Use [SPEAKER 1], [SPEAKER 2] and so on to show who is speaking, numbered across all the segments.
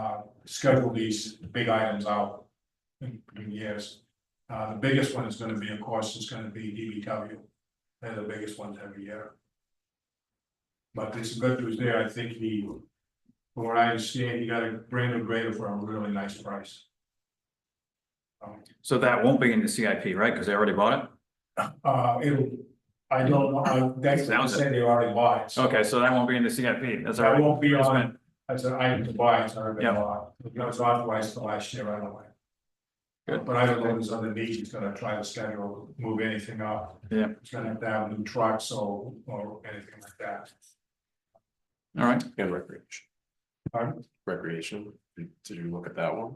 [SPEAKER 1] uh, schedule these big items out in in years. Uh, the biggest one is gonna be, of course, is gonna be DBW. They're the biggest ones every year. But there's some good news there. I think he, from what I understand, he got a brand new grader for a really nice price. Um,
[SPEAKER 2] So that won't be in the CIP, right? Because they already bought it?
[SPEAKER 1] Uh, it'll, I don't know, I- that's what I'm
[SPEAKER 2] Sounds Oh, it.
[SPEAKER 1] saying, they already bought it. so
[SPEAKER 2] Okay, so that won't be in the CIP. That's all
[SPEAKER 1] That
[SPEAKER 2] right.
[SPEAKER 1] won't be
[SPEAKER 2] It's
[SPEAKER 1] on,
[SPEAKER 2] been-
[SPEAKER 1] as an item to buy, it's already been
[SPEAKER 2] Yeah.
[SPEAKER 1] bought, it was authorized for last year right away.
[SPEAKER 2] Good.
[SPEAKER 1] But I don't know who's underneath, he's gonna try to schedule, move anything up.
[SPEAKER 2] Yeah.
[SPEAKER 1] He's gonna have to have new trucks or, or anything like that.
[SPEAKER 2] All right.
[SPEAKER 3] And recreation.
[SPEAKER 1] Pardon?
[SPEAKER 3] Recreation, did did you look at that one?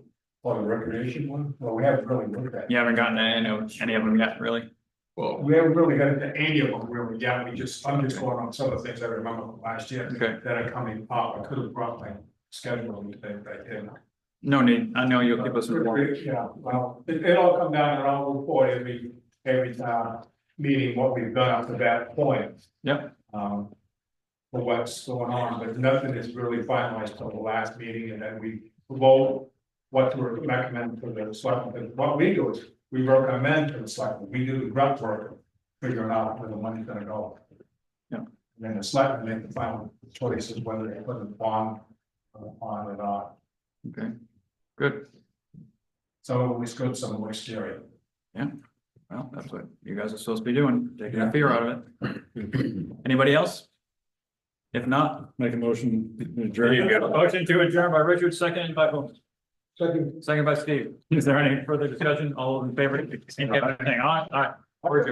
[SPEAKER 1] Or the recreation one, well, we haven't really looked at. it.
[SPEAKER 2] You haven't gotten any of any of them yet, really?
[SPEAKER 3] Well,
[SPEAKER 1] We haven't really got into any of them really yet, we just, I'm just going on some of the things I remember from last year
[SPEAKER 2] Okay,
[SPEAKER 1] that are coming up, I could have brought my schedule and things I didn't.
[SPEAKER 2] no need. I know you'll give us a report.
[SPEAKER 1] Yeah, well, it, it'll come down and I'll report every, every time, meeting what we've done up to that point.
[SPEAKER 2] Yep.
[SPEAKER 1] Um. For what's going on, but nothing is really finalized till the last meeting and then we vote. What to recommend for the selectmen, And what we do is, we recommend to the selectmen, we do the grunt work, figuring out where the money's gonna go.
[SPEAKER 2] Yeah.
[SPEAKER 1] And then the selectmen make the final choice is whether they put a bond uh, on or not.
[SPEAKER 2] Okay, good.
[SPEAKER 1] Some of them is good, some of them is scary.
[SPEAKER 2] Well, that's what you guys are supposed to be doing, taking a fear out of it. Anybody else? If not. Make a motion. Motion to adjourn by Richard, second by whom? Second by Steve. Is there any further discussion? All those in favor, indicate by saying aye. Aye. We're adjourned.